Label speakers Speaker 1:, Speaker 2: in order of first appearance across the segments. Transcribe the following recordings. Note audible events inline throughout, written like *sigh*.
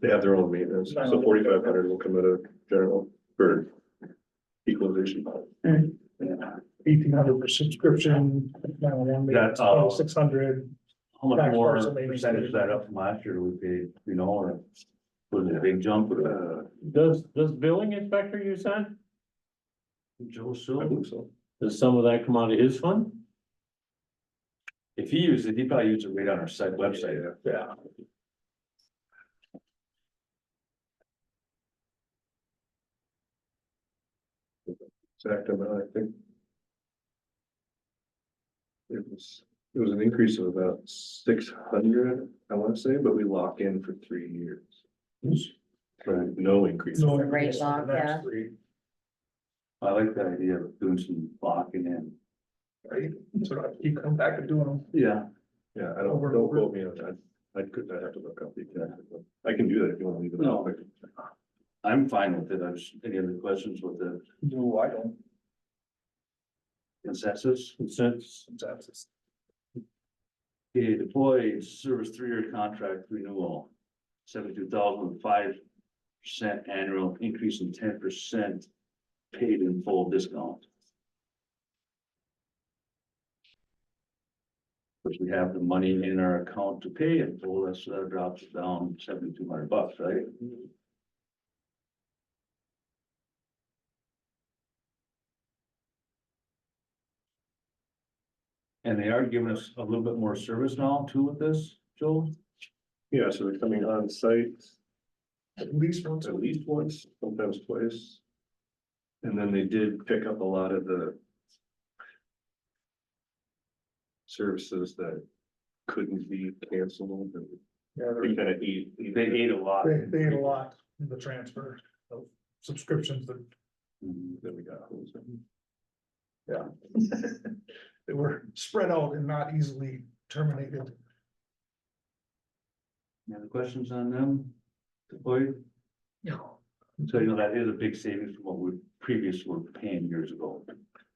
Speaker 1: They have their own maintenance, so forty-five hundred will come out of general for equalization.
Speaker 2: eighteen hundred per subscription, now one
Speaker 3: That, uh,
Speaker 2: six hundred.
Speaker 3: How much
Speaker 2: Back
Speaker 3: more
Speaker 2: parcel maybe.
Speaker 3: percentage is that up from last year we paid, you know, or was it a big jump?
Speaker 1: Uh,
Speaker 4: Does, does billing inspector you said,
Speaker 3: Joe
Speaker 1: I
Speaker 3: Sue,
Speaker 1: believe so.
Speaker 4: does some of that come out of his fund?
Speaker 3: if he used it, he probably used it right on our site website.
Speaker 2: Yeah.
Speaker 1: Exact amount, I think. It was, it was an increase of about six hundred, I want to say, but we lock in for three years. So no increase.
Speaker 2: No
Speaker 5: The rate
Speaker 2: increase in the
Speaker 5: lock,
Speaker 2: next
Speaker 5: yeah.
Speaker 2: three,
Speaker 3: I like the idea of doing some blocking in.
Speaker 2: Right, so I keep coming back and doing them.
Speaker 3: Yeah.
Speaker 1: Yeah, I don't,
Speaker 2: Over-
Speaker 1: don't quote me on that. I could, I have to look up the exact, but I can do that if you want to leave it.
Speaker 3: No.
Speaker 1: up.
Speaker 3: I'm fine with it. I was, any other questions with the
Speaker 2: No, I don't,
Speaker 3: consensus?
Speaker 4: Since
Speaker 2: that's just-
Speaker 3: Okay, deploy service three-year contract renewal, seventy-two thousand five percent annual increase in ten percent paid in full discount. Which we have the money in our account to pay in full, that's, that drops it down seventy-two hundred bucks, right? And they are giving us a little bit more service now too with this, Joel?
Speaker 1: Yeah, so they're coming on site.
Speaker 2: at least once.
Speaker 1: at least once, sometimes twice. And then they did pick up a lot of the services that couldn't be canceled and
Speaker 2: Yeah,
Speaker 1: they
Speaker 2: they're-
Speaker 1: kind of eat.
Speaker 3: They ate a lot.
Speaker 2: They, they ate a lot in the transfer of subscriptions that Mm-hmm.
Speaker 3: Mhm.
Speaker 1: Then we got hosed.
Speaker 2: *laughs* they were spread out and not easily terminated.
Speaker 3: Any other questions on them? Deploy?
Speaker 2: No.
Speaker 3: So you know, that is a big savings from what we previously were paying years ago.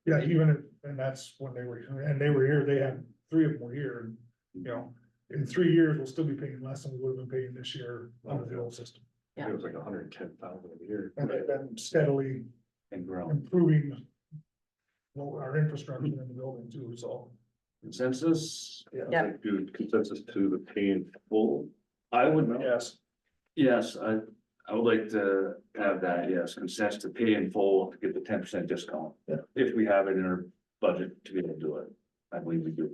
Speaker 2: Yeah, even, if- and that's when they were, and they were here, they had three of them were here, and, you know, in three years, we'll still be paying less than we would have been paying this year under the old system.
Speaker 1: It was like hundred and ten thousand a year.
Speaker 2: And they've been steadily
Speaker 3: And ground
Speaker 2: improving well, our infrastructure in the building too, so.
Speaker 3: consensus,
Speaker 5: Yeah.
Speaker 1: Like, Dude, consensus to the pay in full.
Speaker 3: I would,
Speaker 2: Yes.
Speaker 3: yes, I, I would like to have that, yes, consensus to pay in full to get the ten percent discount.
Speaker 2: Yeah.
Speaker 3: If we have it in our budget to be able to do it, I believe we do.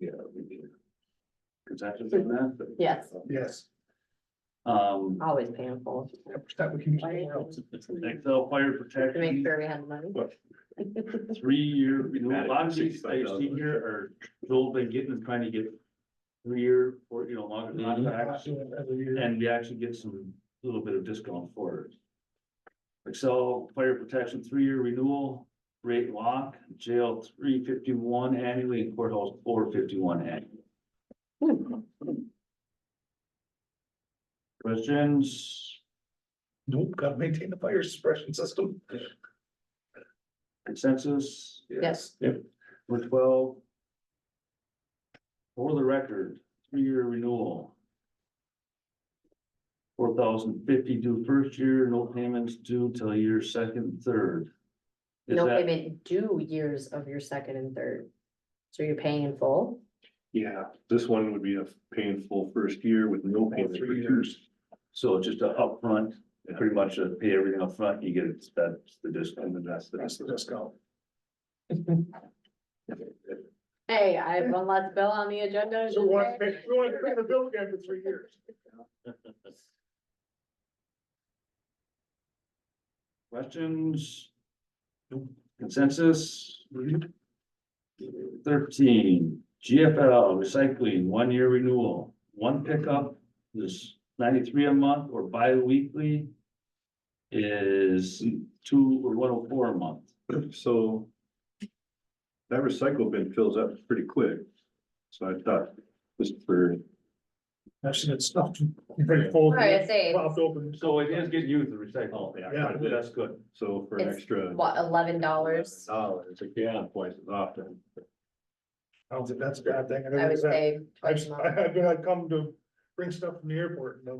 Speaker 1: Yeah, we did.
Speaker 3: Consensus on that,
Speaker 5: Yes,
Speaker 2: Yes.
Speaker 3: um,
Speaker 5: always painful
Speaker 2: That we can use somewhere else.
Speaker 5: to
Speaker 3: Excel fire
Speaker 5: make
Speaker 3: protection,
Speaker 5: sure we have money.
Speaker 1: What?
Speaker 3: three-year renewal, a lot of these, I
Speaker 1: $65.
Speaker 3: see here are, Joel been getting, is trying to get three-year, or, you know, longer
Speaker 4: Mhm.
Speaker 3: contracts.
Speaker 2: Doing it every year.
Speaker 3: Mm-hmm. And we actually get some, little bit of discount for it. Excel Fire Protection three-year renewal, rate lock, jail three fifty-one annually and courthouse four fifty-one annually. Questions,
Speaker 2: Nope, gotta maintain the fire suppression system.
Speaker 3: consensus?
Speaker 5: Yes.
Speaker 3: Number twelve. For the record, three-year renewal. Four thousand fifty due first year, no payments due till year second, third. Is
Speaker 5: No
Speaker 3: that-
Speaker 5: payment due years of your second and third. So you're paying in full?
Speaker 1: Yeah, this one would be a pay in full first year with no payment for
Speaker 2: Three
Speaker 1: two
Speaker 2: years.
Speaker 3: So just a upfront, pretty much uh, pay everything upfront, you get that's the discount, and that's the
Speaker 2: That's the discount.
Speaker 5: Hey, I have one last bill on the agenda.
Speaker 2: So we want to pay, we want to pay the bill again for three years.
Speaker 3: Questions? Consensus? Thirteen, GFL recycling, one-year renewal, one pickup is ninety-three a month or bi-weekly is two or one oh four a month.
Speaker 1: So that recycle bin fills up pretty quick. So I thought just for
Speaker 2: Actually, it's stuffed pretty full.
Speaker 5: Right, I say,
Speaker 2: Popped open.
Speaker 3: So it is getting used to recycle.
Speaker 1: Yeah, it is.
Speaker 3: That's good.
Speaker 1: So for an
Speaker 5: It's
Speaker 1: extra.
Speaker 5: what, eleven dollars?
Speaker 1: Dollars, like, yeah, twice as often.
Speaker 2: I don't think that's a bad thing.
Speaker 5: I would say.
Speaker 2: I've, *laughs*
Speaker 5: twice a month.
Speaker 2: I've, I've come to bring stuff from the airport and they'll